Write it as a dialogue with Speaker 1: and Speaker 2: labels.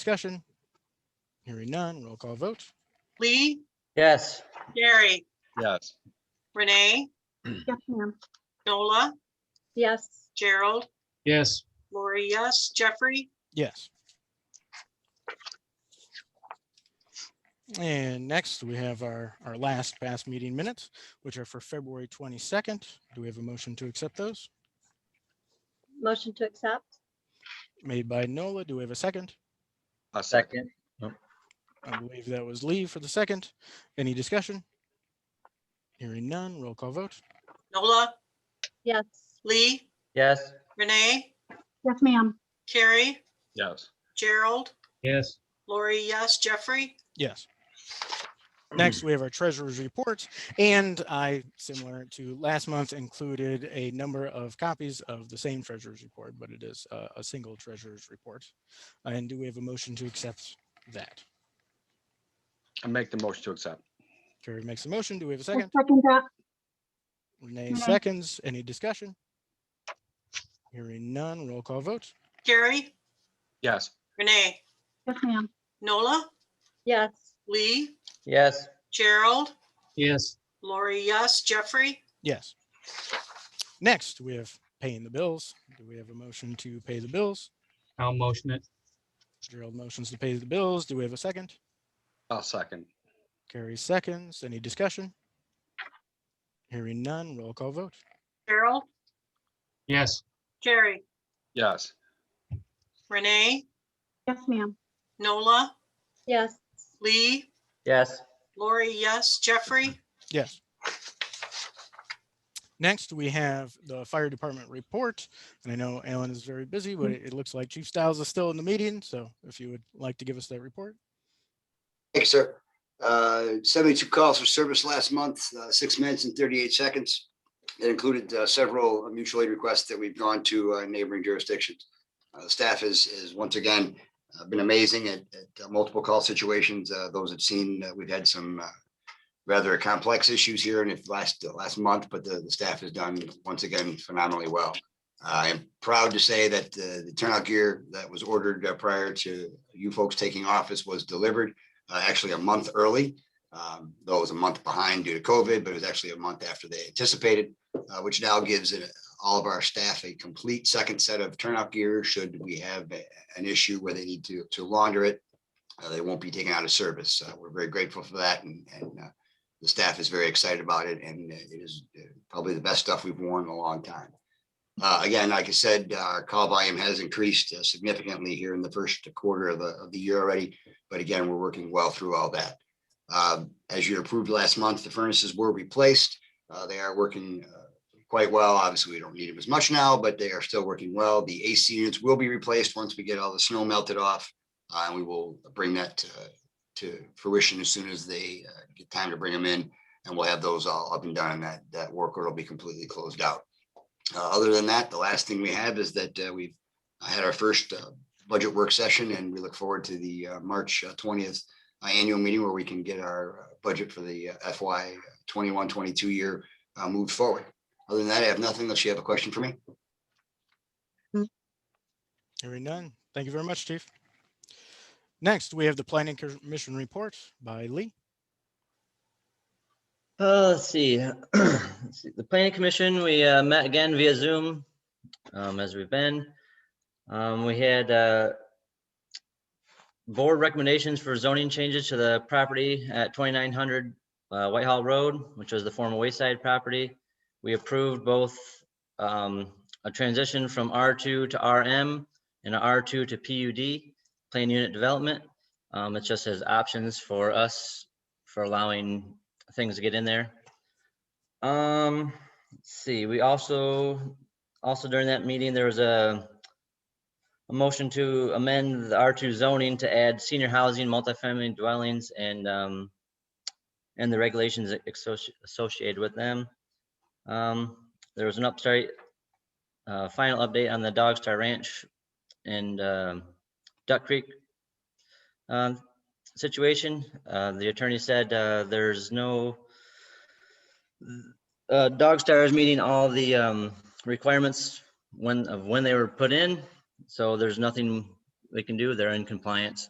Speaker 1: Discussion? Hearing none, roll call vote.
Speaker 2: Lee,
Speaker 3: Yes.
Speaker 2: Gary,
Speaker 4: Yes.
Speaker 2: Renee,
Speaker 5: Yes, ma'am.
Speaker 2: Nola,
Speaker 5: Yes.
Speaker 2: Gerald,
Speaker 6: Yes.
Speaker 2: Lori, yes, Jeffrey,
Speaker 1: Yes. And next, we have our, our last past meeting minutes, which are for February 22nd. Do we have a motion to accept those?
Speaker 5: Motion to accept?
Speaker 1: Made by Nola. Do we have a second?
Speaker 4: A
Speaker 3: Second.
Speaker 1: I believe that was Lee for the second. Any discussion? Hearing none, roll call vote.
Speaker 2: Nola,
Speaker 5: Yes.
Speaker 2: Lee,
Speaker 3: Yes.
Speaker 2: Renee,
Speaker 5: Yes, ma'am.
Speaker 2: Carrie,
Speaker 4: Yes.
Speaker 2: Gerald,
Speaker 6: Yes.
Speaker 2: Lori, yes, Jeffrey,
Speaker 1: Yes. Next, we have our treasurer's report, and I, similar to last month, included a number of copies of the same treasurer's report, but it is uh, a, a single treasurer's report. And do we have a motion to accept that?
Speaker 4: I make the motion to accept.
Speaker 1: Carrie makes a motion. Do we have a
Speaker 5: I
Speaker 1: second?
Speaker 5: Second that.
Speaker 1: Renee
Speaker 5: Renee.
Speaker 1: seconds. Any discussion? Hearing none, roll call vote.
Speaker 2: Gary,
Speaker 4: Yes.
Speaker 2: Renee,
Speaker 5: Yes, ma'am.
Speaker 2: Nola,
Speaker 5: Yes.
Speaker 2: Lee,
Speaker 3: Yes.
Speaker 2: Gerald,
Speaker 6: Yes.
Speaker 2: Lori, yes, Jeffrey,
Speaker 1: Yes. Next, we have paying the bills. Do we have a motion to pay the bills?
Speaker 6: I'll motion it.
Speaker 1: Gerald motions to pay the bills. Do we have a second?
Speaker 4: A second.
Speaker 1: Carrie seconds. Any discussion? Hearing none, roll call vote.
Speaker 2: Gerald,
Speaker 6: Yes.
Speaker 2: Gary,
Speaker 4: Yes.
Speaker 2: Renee,
Speaker 5: Yes, ma'am.
Speaker 2: Nola,
Speaker 5: Yes.
Speaker 2: Lee,
Speaker 3: Yes.
Speaker 2: Lori, yes, Jeffrey,
Speaker 1: Yes. Next, we have the fire department report. And I know Alan is very busy, but it it looks like Chief Styles is still in the meeting. So if you would like to give us that report.
Speaker 7: Thanks, sir. Uh, 72 calls for service last month, uh, six minutes and 38 seconds. It included uh, several mutual aid requests that we've gone to uh, neighboring jurisdictions. Uh, The Staff is, is once again, uh, been amazing at, at uh, multiple call situations. Uh, Those have seen, uh, we've had some uh, rather complex issues here in the last, uh, last month, but the, the staff has done once again phenomenally well. I am proud to say that uh, the turnout gear that was ordered uh, prior to you folks taking office was delivered uh, actually a month early. Um, though it was a month behind due to COVID, but it was actually a month after they anticipated, uh, which now gives it- all of our staff a complete second set of turnout gear should we have a- an issue where they need to, to launder it. Uh, they won't be taken out of service. Uh, we're very grateful for that and, and, uh, the staff is very excited about it and uh, it is uh, probably the best stuff we've worn in a long time. Uh, again, like I said, our call volume has increased uh, significantly here in the first quarter of the, of the year already. But again, we're working well through all that. Um, As you approved last month, the furnaces were replaced. Uh, They are working uh, quite well. Obviously, we don't need them as much now, but they are still working well. The AC units will be replaced once we get all the snow melted off. uh, And we will bring that to- to fruition as soon as they uh, get time to bring them in. And we'll have those all up and done and that, that work order will be completely closed out. Uh, Other than that, the last thing we have is that uh, we've had our first uh, budget work session, and we look forward to the uh, March twentieth uh, annual meeting where we can get our uh, budget for the uh, FY 21-22 year uh, moved forward. Other than that, I have nothing unless you have a question for me.
Speaker 1: Hearing none. Thank you very much, Chief. Next, we have the planning commission report by Lee.
Speaker 3: Uh, let's see. Let's see. The planning commission, we uh, met again via Zoom, um, as we've been. Um, we had, uh, board recommendations for zoning changes to the property at twenty-nine hundred, uh, Whitehall Road, which was the former Wayside property. We approved both, um, a transition from R two to RM and R two to PUD, plan unit development. Um, it just has options for us for allowing things to get in there. Um, let's see, we also, also during that meeting, there was a a motion to amend the R two zoning to add senior housing, multifamily dwellings and um and the regulations associ- associated with them. Um, there was an update, uh, final update on the Dog Star Ranch and um Duck Creek um, situation. Uh, the attorney said, uh, there's no, uh, Dog Star is meeting all the, um, requirements when, of when they were put in. So there's nothing they can do. They're in compliance.